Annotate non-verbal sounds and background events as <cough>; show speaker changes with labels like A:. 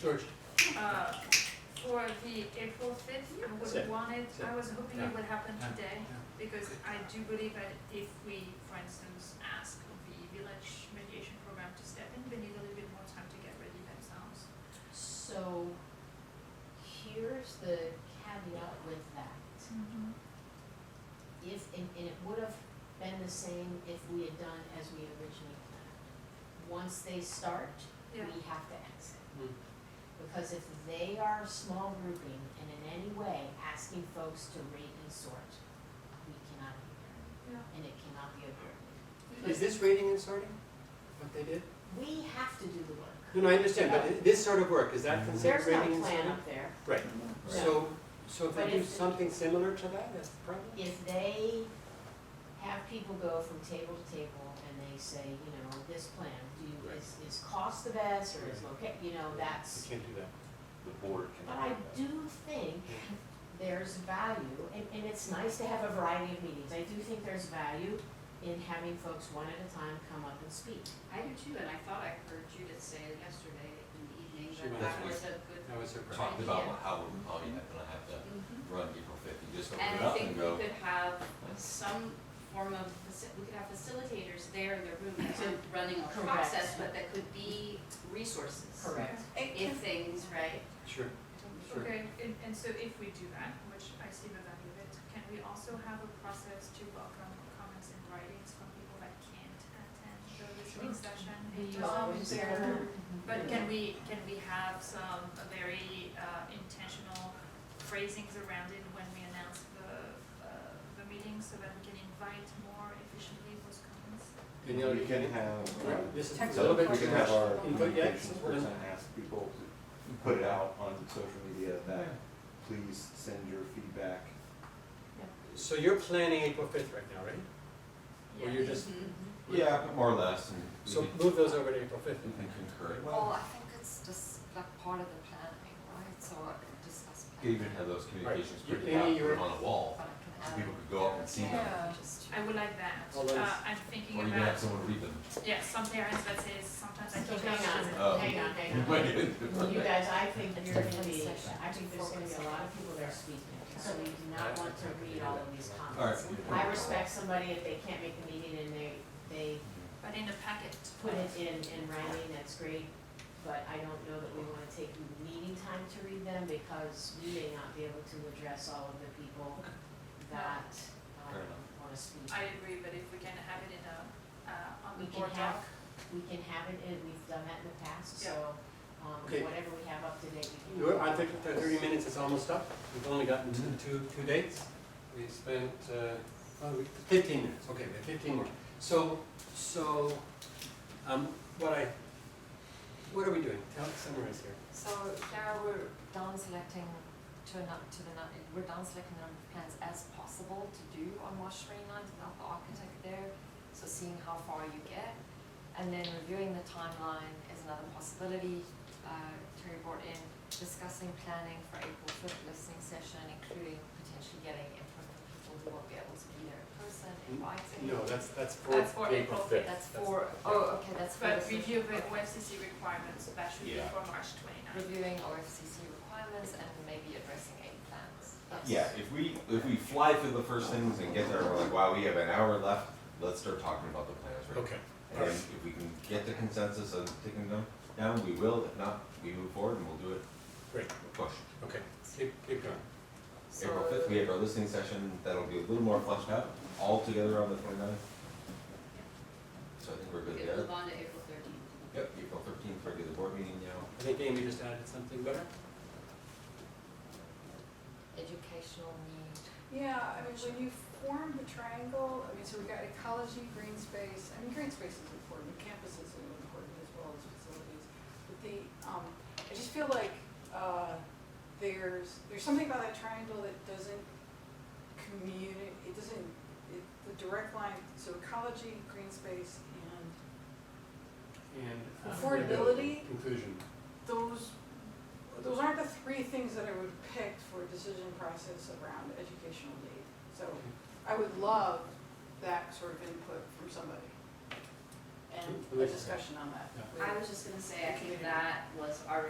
A: George,
B: Uh, for the April fifth, I would
A: Sir.
B: want it,
A: Sir.
B: I was hoping
A: Yeah.
B: it would happen
A: Yeah.
B: today, because I do believe that if we, for instance, ask the village mediation program to step in, they need a little bit more time to get ready themselves.
C: So here's the caveat with that. If, and, and it would have been the same if we had done as we originally planned. Once they start, we
B: Yeah.
C: have to exit.
A: Hmm.
C: Because if they are small grouping and in any way asking folks to rate and sort, we cannot be there.
B: Yeah.
C: And it cannot be a group.
A: is this rating and sorting, what they did?
C: We have to do the work.
A: No, no, I understand, but i- this sort of work, is that considered
C: There's no
A: rating and
C: plan
A: sorting?
C: up there.
A: Right,
C: No.
A: so, so if
C: But
A: they do
C: if-
A: something similar to that, that's the problem?
C: if they have people go from table to table and they say, you know, this plan, do you, is, is cost the best or is loca, you know, that's.
A: You can't do that.
D: The board
C: But
D: cannot.
C: I do think there's value, and, and it's nice to have a variety of meetings, I do think there's value in having folks one at a time come up and speak.
E: I do too, and I thought I heard Judith say yesterday in the evening
A: She
E: that
A: was.
E: that was a good.
A: I was surprised.
D: Talked about how we're probably not gonna have to
C: Mm-hmm.
E: Mhm.
D: run April fifty, just open
E: And
D: it
E: I
D: up and
E: think we
D: go.
E: could have some form of, faci- we could have facilitators there in the room that are running a
C: Correct.
E: process, but that could be resources.
C: Correct.
E: If things, right?
A: Sure, Sure.
B: Okay, and, and so if we do that, which I see the value of it, can we also have a process to welcome comments and writings from people that can't attend the listening session? It doesn't
C: Always
B: matter.
C: there. Mm-hmm.
B: But can we, can we have some very uh, intentional phrasings around it when we announce the, uh, the meeting so that we can invite more efficiently those comments?
A: Danielle,
F: We
A: you
F: can
A: can,
F: have, um,
A: this is a
D: Text
A: little bit
D: We
A: too
F: we can have
A: much
F: our
A: input yet.
F: communications person ask people to put it out on social media that, please send your feedback.
A: So you're planning April fifth right now, right? Or you're just,
E: Mhm.
D: Yeah, more or less, and we
A: so
D: can,
A: move those over to April fifth.
D: we can concur. it.
G: Well, I think it's just like part of the planning, right, so I can discuss.
D: We could
G: planning,
D: Even have those communications
A: You-
D: printed
A: Amy,
D: out, put
A: you're-
D: it on a wall,
G: But I
D: so
G: can add.
D: people could go up and see them,
G: Uh, Yeah.
B: I would like that.
A: All those-
B: Uh, I'm thinking
D: or you can have
B: about,
D: someone read them.
B: yeah, some parents that says sometimes I
C: So
B: can't.
C: hang on,
B: access it.
D: Oh.
C: hang on,
D: <laughs>
C: hang on. You guys, I think you're gonna be, I think there's gonna be a lot of people there speaking, so we do not want to read all of these comments. I
D: Alright.
C: respect somebody if they can't make the meeting and they, they
B: But in the packet.
C: put it in, in writing, that's great, but I don't know that we wanna take meeting time to read them because we may not be able to address all of the people that, um,
D: Fair enough.
C: wanna speak.
B: I agree, but if we can have it in a, uh, on the
C: We can
B: board
C: have,
B: doc.
C: we can have it, and we've done that in the past, so, um,
A: Okay.
C: whatever we have up to date, we can.
A: We're- I think the thirty minutes is almost up. We've only gotten two, two, two dates. We spent, uh, oh, we- fifteen minutes, okay, we have fifteen more. So, so, um, what I, what are we doing? Tell, summarize here.
G: So now we're down selecting to a, nu- to the, nu- we're down selecting the number of plans as possible to do on March 29th without the architect there, so seeing how far you get. And then reviewing the timeline is another possibility, uh, Terry brought in, discussing planning for April fifth listening session, including potentially getting input from people who won't be able to be there in person, inviting.
A: Mm-hmm. No, that's, that's for
B: That's for
A: April
B: April
A: fifth.
G: That's for, oh, okay, that's for.
B: But
G: the-
B: review the OFCC requirements, that should be
D: Yeah.
B: for March twenty-ninth.
G: reviewing OFCC requirements and maybe addressing aid plans.
D: Yeah, if we, if we fly through the first things and get there, we're like, wow, we have an hour left, let's start talking about the plans right
A: Okay.
D: And then if we can get the consensus on taking them down, we will, if not, we move forward and we'll do it.
A: Great.
D: Push.
A: Okay, keep, keep going.
G: So-
D: April fifth, we have our listening session, that'll be a little more fleshed out, all together on the 29th. So I think we're
E: We
D: good
E: could
D: there.
E: move on to April thirteenth.
D: Yep, April thirteenth, regular board meeting now.
A: I think Amy just added something better.
G: Educational need.
H: Yeah, I mean, when you form the triangle, I mean, so we've got ecology, green space, I mean, green space is important, campuses are important as well as facilities. But the, um, I just feel like, uh, there's, there's something about that triangle that doesn't communi, it doesn't, it, the direct line, so ecology, green space, and
A: And. uh,
H: Affordability.
A: Inclusion.
H: those, those aren't the three things that I would pick for a decision process around educational need. So I would love that sort of input from somebody and a discussion on that.
A: Yeah.
H: with-
E: I was just gonna say, I think that was our